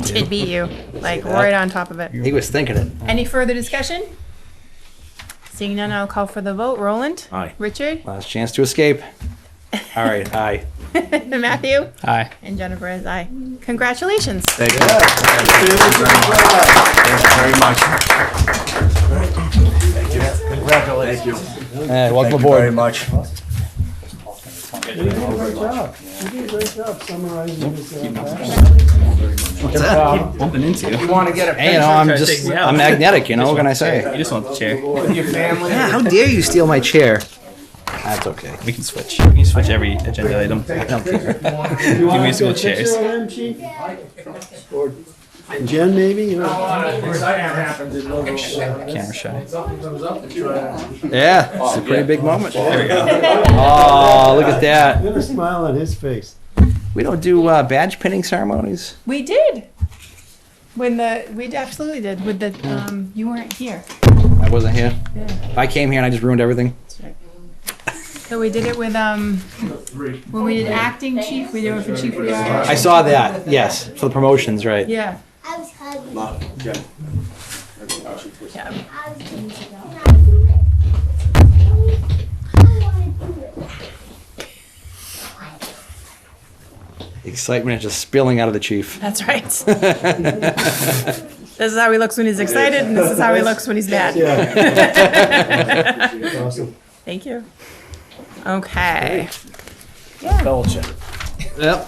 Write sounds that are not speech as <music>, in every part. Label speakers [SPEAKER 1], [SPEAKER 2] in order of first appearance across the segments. [SPEAKER 1] did beat you, like right on top of it.
[SPEAKER 2] He was thinking it.
[SPEAKER 1] Any further discussion? Seeing none, I'll call for the vote. Roland?
[SPEAKER 3] Aye.
[SPEAKER 1] Richard?
[SPEAKER 2] Last chance to escape. All right,
[SPEAKER 4] uh,
[SPEAKER 2] aye.
[SPEAKER 1] <laughs> Matthew?
[SPEAKER 5] Aye.
[SPEAKER 1] And Jennifer is aye. Congratulations.
[SPEAKER 3] Thank you. Thank you very much. Congratulations.
[SPEAKER 5] Hey,
[SPEAKER 3] Thank
[SPEAKER 5] welcome
[SPEAKER 3] you very
[SPEAKER 5] aboard.
[SPEAKER 3] much.
[SPEAKER 6] You did a great job. You did a great job summarizing this. uh, back.
[SPEAKER 4] bumping into. You
[SPEAKER 2] want to get a
[SPEAKER 5] Hey, you know, I'm just, I'm magnetic, you know, what can I say?
[SPEAKER 4] just want the chair.
[SPEAKER 2] your family.
[SPEAKER 5] Yeah, How dare you steal my chair?
[SPEAKER 2] That's okay.
[SPEAKER 4] We can switch. We can switch every agenda item.
[SPEAKER 6] You want
[SPEAKER 4] musical
[SPEAKER 6] to get a
[SPEAKER 4] chairs.
[SPEAKER 6] picture of him, Chief? Or Jen, maybe? you know?
[SPEAKER 4] Camera shy.
[SPEAKER 5] Yeah, it's a pretty big moment. <laughs> Oh, look at that.
[SPEAKER 6] Get a smile on his face.
[SPEAKER 5] We don't do uh, badge pinning ceremonies?
[SPEAKER 1] We did. When the, we absolutely did, with the, um, you weren't here.
[SPEAKER 5] I wasn't here. If I came here and I just ruined everything.
[SPEAKER 1] So we did it with, um, when we did acting chief, we did it for chief Riara.
[SPEAKER 5] I saw that, yes, for the promotions, right?
[SPEAKER 1] Yeah.
[SPEAKER 7] I was hugging.
[SPEAKER 1] Yeah.
[SPEAKER 7] I was going to go. I do it. I want to do it.
[SPEAKER 5] Excitement is just spilling out of the chief. <laughs>
[SPEAKER 1] That's right. <laughs> this is how he looks when he's excited, and this is how he looks when he's mad.
[SPEAKER 6] Awesome.
[SPEAKER 1] Thank you. Okay. Yeah.
[SPEAKER 5] Yep.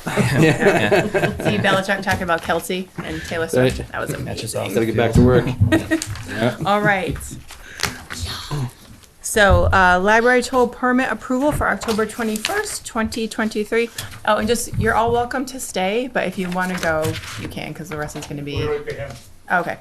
[SPEAKER 1] See Belichick talking about Kelsey and Taylor Swift.
[SPEAKER 5] Right.
[SPEAKER 1] That was amazing.
[SPEAKER 5] Gotta get back to work.
[SPEAKER 1] All right. So, uh, library toll permit approval for October twenty-first, twenty twenty-three. Oh, and just, you're all welcome to stay, but if you want to go, you can, because the rest is gonna be. Okay.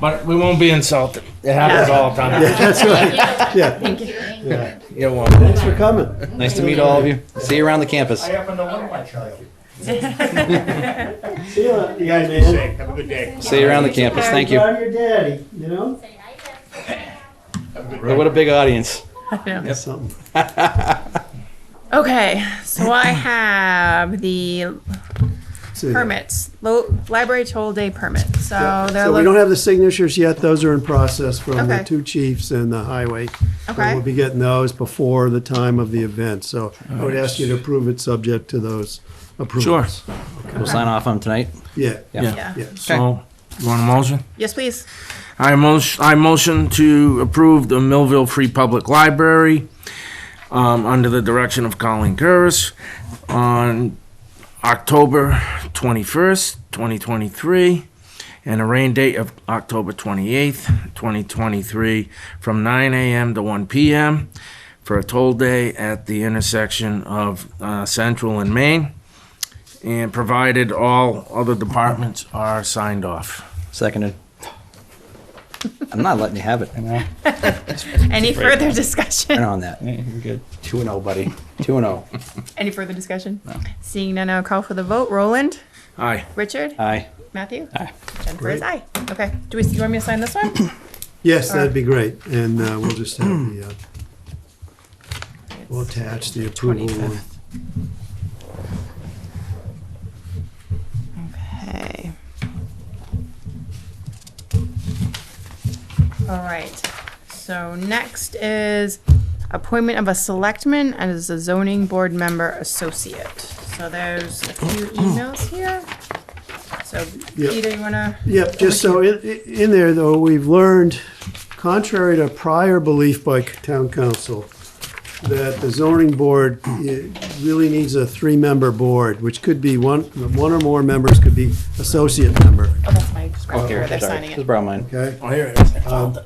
[SPEAKER 8] But we won't be insulted. It happens all the time.
[SPEAKER 6] That's right, yeah. Thank
[SPEAKER 1] you.
[SPEAKER 6] Yeah,
[SPEAKER 8] You won't.
[SPEAKER 6] thanks for coming.
[SPEAKER 5] Nice to meet all of you. See you around the campus.
[SPEAKER 8] happen to love my child.
[SPEAKER 6] See you, you guys, man.
[SPEAKER 8] Have a good day.
[SPEAKER 5] See you around the campus. Thank you.
[SPEAKER 6] Proud of your daddy, you know?
[SPEAKER 5] Look What a big audience.
[SPEAKER 6] That's something.
[SPEAKER 1] <laughs> Okay, so I have the
[SPEAKER 6] See that.
[SPEAKER 1] permits, lo- library toll day permit, so Oh, they're.
[SPEAKER 6] So we
[SPEAKER 1] look-
[SPEAKER 6] don't have the signatures yet. Those are in process from
[SPEAKER 1] Okay.
[SPEAKER 6] the two chiefs and the highway. And
[SPEAKER 1] Okay.
[SPEAKER 6] We'll be getting those before the time of the event, so I would ask you to approve it subject to those approvals. Sure.
[SPEAKER 5] We'll sign off on 'em tonight.
[SPEAKER 6] Yeah,
[SPEAKER 1] Yeah,
[SPEAKER 6] yeah.
[SPEAKER 8] So, you want a motion?
[SPEAKER 1] yes, please,
[SPEAKER 8] I motion, I motion to approve the Millville Free Public Library, um, under the direction of Colin Curris on October twenty-first, twenty twenty-three, and a rain date of October twenty-eighth, twenty twenty-three, from nine AM to one PM for a toll day at the intersection of, uh, Central and Main, and provided all other departments are signed off.
[SPEAKER 5] Seconded. I'm not letting you have <laughs> it.
[SPEAKER 1] any further <laughs>
[SPEAKER 6] <laughs>
[SPEAKER 5] Turn
[SPEAKER 1] discussion,
[SPEAKER 5] on that.
[SPEAKER 4] You're good.
[SPEAKER 5] Two and oh, buddy. <laughs> Two and oh.
[SPEAKER 1] any further discussion? Seeing none, I'll call for the vote, Roland,
[SPEAKER 8] Aye.
[SPEAKER 1] Richard,
[SPEAKER 5] Aye.
[SPEAKER 1] Matthew? Aye. Jennifer is aye, okay, do we, you want me to sign this one?
[SPEAKER 6] Yes, that'd be great, and uh, we'll just have the, uh, we'll attach the approval. one.
[SPEAKER 1] Okay. All right, so next is appointment of a selectman as a zoning board member associate. So there's a few emails here. So
[SPEAKER 6] Yep.
[SPEAKER 1] Peter, you wanna?
[SPEAKER 6] Yep, just so in, in there though, we've learned, contrary to prior belief by town council, that the zoning board eh, really needs a three-member board, which could be one, one or more members could be associate member,
[SPEAKER 1] Oh, that's my script
[SPEAKER 5] Here,
[SPEAKER 1] where they're
[SPEAKER 5] sorry.
[SPEAKER 1] signing
[SPEAKER 5] Just
[SPEAKER 1] it.
[SPEAKER 5] borrow mine.
[SPEAKER 6] okay?
[SPEAKER 8] Oh, here it is.
[SPEAKER 6] Uh,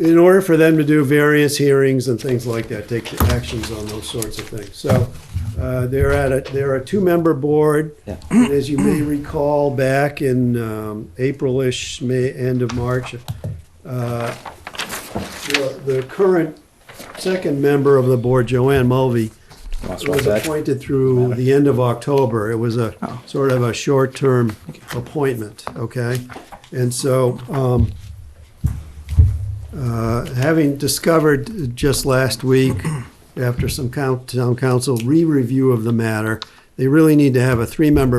[SPEAKER 6] In order for them to do various hearings and things like that, take actions on those sorts of things. So uh, they're at a, they're a two-member board.
[SPEAKER 5] Yeah.
[SPEAKER 6] And As you may recall, back in um, April-ish, May, end of March, uh, the the current second member of the board, Joanne Mulvey,
[SPEAKER 5] Lost my
[SPEAKER 6] was
[SPEAKER 5] bag.
[SPEAKER 6] appointed through the end of October. It was a sort of a short-term appointment, okay? And so, um, uh, having discovered just last week, after some coun- town council re-review of the matter, they really need to have a three-member